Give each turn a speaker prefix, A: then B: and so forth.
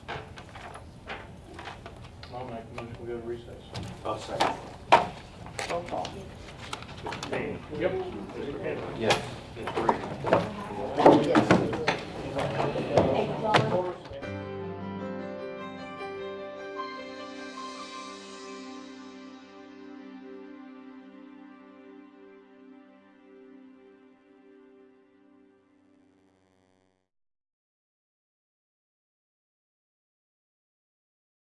A: I'll make a motion, we go to recess.
B: I'll second.
A: Roll call.
B: Yes.